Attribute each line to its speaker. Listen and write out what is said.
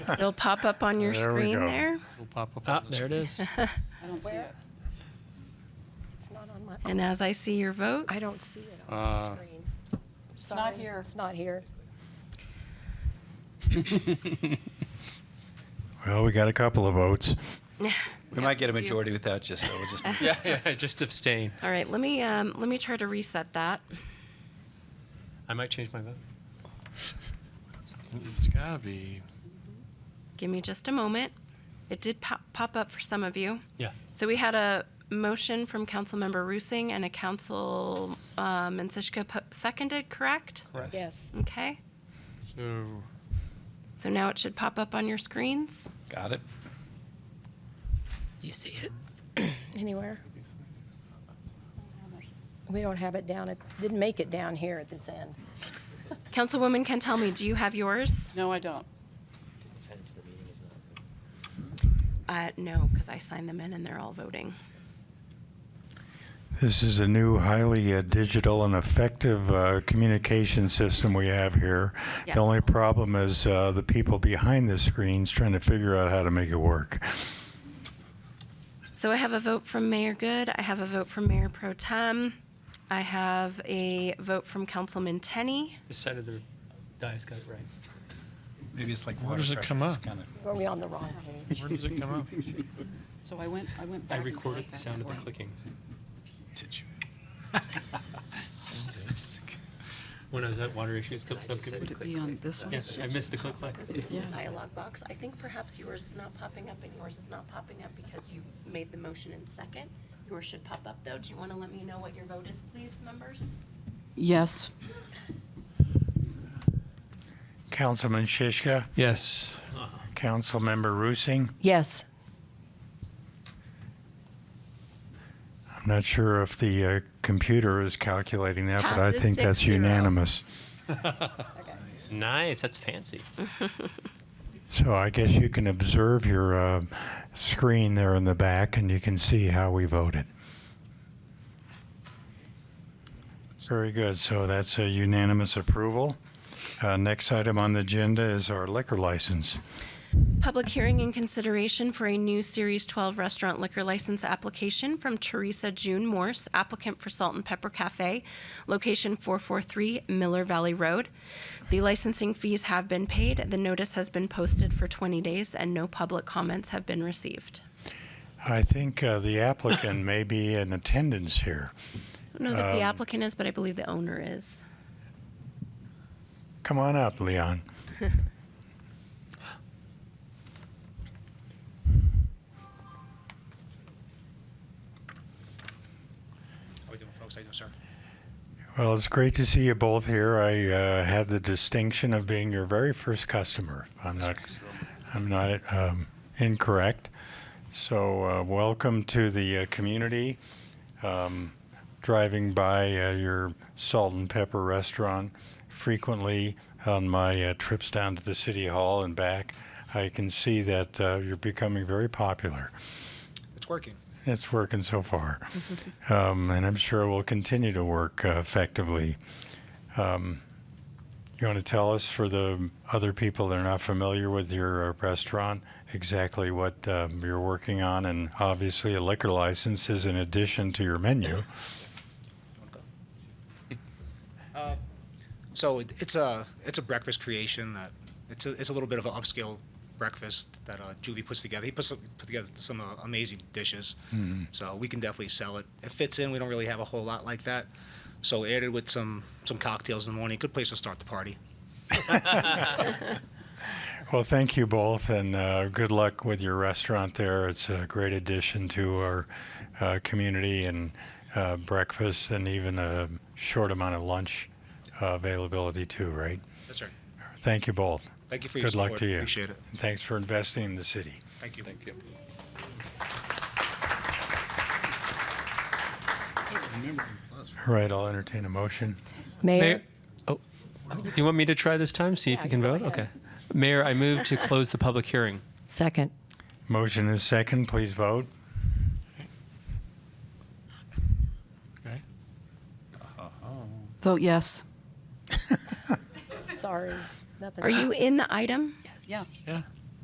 Speaker 1: It'll pop up on your
Speaker 2: There we
Speaker 1: screen
Speaker 2: go.
Speaker 1: there.
Speaker 3: will pop up
Speaker 4: Ah,
Speaker 3: on the
Speaker 4: there it
Speaker 3: screen.
Speaker 4: is.
Speaker 5: I don't see it.
Speaker 6: It's not on my,
Speaker 1: And as I see your votes,
Speaker 6: I don't see it on
Speaker 3: Uh,
Speaker 6: the screen.
Speaker 5: not
Speaker 6: Sorry,
Speaker 5: here.
Speaker 6: It's not here.
Speaker 2: Well, we got a couple of votes.
Speaker 7: We might get a majority without you, so we'll just.
Speaker 4: yeah, yeah, just abstain.
Speaker 1: All right, let me um, let me try to reset that.
Speaker 4: I might change my vote.
Speaker 3: It's gotta be.
Speaker 1: Give me just a moment. It did pop, pop up for some of you.
Speaker 4: Yeah.
Speaker 1: So we had a motion from Councilmember Roosing and a Council um, and Sishka po- seconded, correct?
Speaker 4: Correct.
Speaker 6: Yes.
Speaker 1: Okay.
Speaker 3: So
Speaker 1: So now it should pop up on your screens.
Speaker 7: Got it.
Speaker 6: You see it? Anywhere? We don't have it down, it didn't make it down here at this end.
Speaker 1: Councilwoman can tell me, do you have yours?
Speaker 5: No, I don't.
Speaker 1: Uh, no, because I signed them in and they're all voting.
Speaker 2: This is a new, highly uh, digital and effective uh, communication system we have here.
Speaker 1: Yeah.
Speaker 2: The only problem is uh, the people behind the screens trying to figure out how to make it work.
Speaker 1: So I have a vote from Mayor Good. I have a vote from Mayor Pro Tem. I have a vote from Councilman Tenney.
Speaker 4: This side of the dice got it right.
Speaker 7: Maybe it's like
Speaker 3: Where
Speaker 7: water
Speaker 3: does it
Speaker 7: pressure,
Speaker 3: come
Speaker 7: it's
Speaker 3: up?
Speaker 7: kinda-
Speaker 6: Were we on the wrong page?
Speaker 3: where does it come up?
Speaker 5: So I went, I went
Speaker 4: I
Speaker 5: back and
Speaker 4: recorded
Speaker 5: forth,
Speaker 4: the
Speaker 5: back
Speaker 4: sound
Speaker 5: and
Speaker 4: of the
Speaker 5: forth.
Speaker 4: clicking.
Speaker 7: Did you-
Speaker 4: When I was at Water Issues Club Subcommittee.
Speaker 5: Would it be on this one?
Speaker 4: Yes, I missed the click click.
Speaker 5: Yeah.
Speaker 1: Dialogue box. I think perhaps yours is not popping up and yours is not popping up because you made the motion in second. Yours should pop up though. Do you want to let me know what your vote is, please, members?
Speaker 5: Yes.
Speaker 2: Councilman Shishka,
Speaker 3: Yes.
Speaker 2: Councilmember Roosing.
Speaker 6: Yes.
Speaker 2: I'm not sure if the uh, computer is calculating that, but I
Speaker 1: Passes
Speaker 2: think that's
Speaker 1: 6-0.
Speaker 2: unanimous.
Speaker 4: Nice, that's fancy.
Speaker 2: So I guess you can observe your uh, screen there in the back, and you can see how we voted. Very good. So that's a unanimous approval. Uh, next item on the agenda is our liquor license.
Speaker 1: Public hearing in consideration for a new Series 12 restaurant liquor license application from Teresa June Morse, applicant for Salt and Pepper Cafe, location 443 Miller Valley Road. The licensing fees have been paid, the notice has been posted for 20 days, and no public comments have been received.
Speaker 2: I think uh, the applicant may be in attendance here.
Speaker 1: I don't know that the applicant is, but I believe the owner is.
Speaker 2: Come on up, Leon.
Speaker 8: How we doing, folks? How you doing, sir?
Speaker 2: Well, it's great to see you both here. I uh, had the distinction of being your very first customer. if I'm not, I'm not um, incorrect. So, uh, welcome to the uh, community. Um, driving by uh, your salt and pepper restaurant frequently on my uh, trips down to the city hall and back, I can see that uh, you're becoming very popular.
Speaker 8: It's working.
Speaker 2: It's working so far. um, and I'm sure will continue to work uh, effectively. Um, you want to tell us, for the other people that are not familiar with your uh, restaurant, exactly what um, you're working on? And obviously, a liquor license is in addition to your menu.
Speaker 8: Uh, So it, it's a it's a breakfast creation that it's a, it's a little bit of an upscale breakfast that uh, Juvie puts together. He puts some- put together some uh, amazing dishes,
Speaker 3: Hmm.
Speaker 8: so we can definitely sell it. It fits in. We don't really have a whole lot like that, so added with some some cocktails in the morning. Good place to start the party.
Speaker 2: Well, thank you both, and uh, good luck with your restaurant there. It's a great addition to our uh, community and uh, breakfast, and even a short amount of lunch uh, availability too. Right?
Speaker 8: That's right.
Speaker 2: Thank you both.
Speaker 8: Thank you for your
Speaker 2: Good
Speaker 8: support.
Speaker 2: luck to you.
Speaker 8: Appreciate it.
Speaker 2: And thanks for investing in the city.
Speaker 8: Thank you. Thank you.
Speaker 2: All right, I'll entertain a motion.
Speaker 6: Mayor?
Speaker 4: Oh, do you want me to try this time? See if
Speaker 6: Yeah,
Speaker 4: you can
Speaker 6: go
Speaker 4: vote?
Speaker 6: ahead.
Speaker 4: Okay. Mayor, I move to close the public hearing.
Speaker 6: Second.
Speaker 2: Motion is second. Please vote.
Speaker 3: Okay.
Speaker 9: Vote yes.
Speaker 6: Sorry. Nothing.
Speaker 1: Are you in the item?
Speaker 5: Yeah.
Speaker 3: Yeah.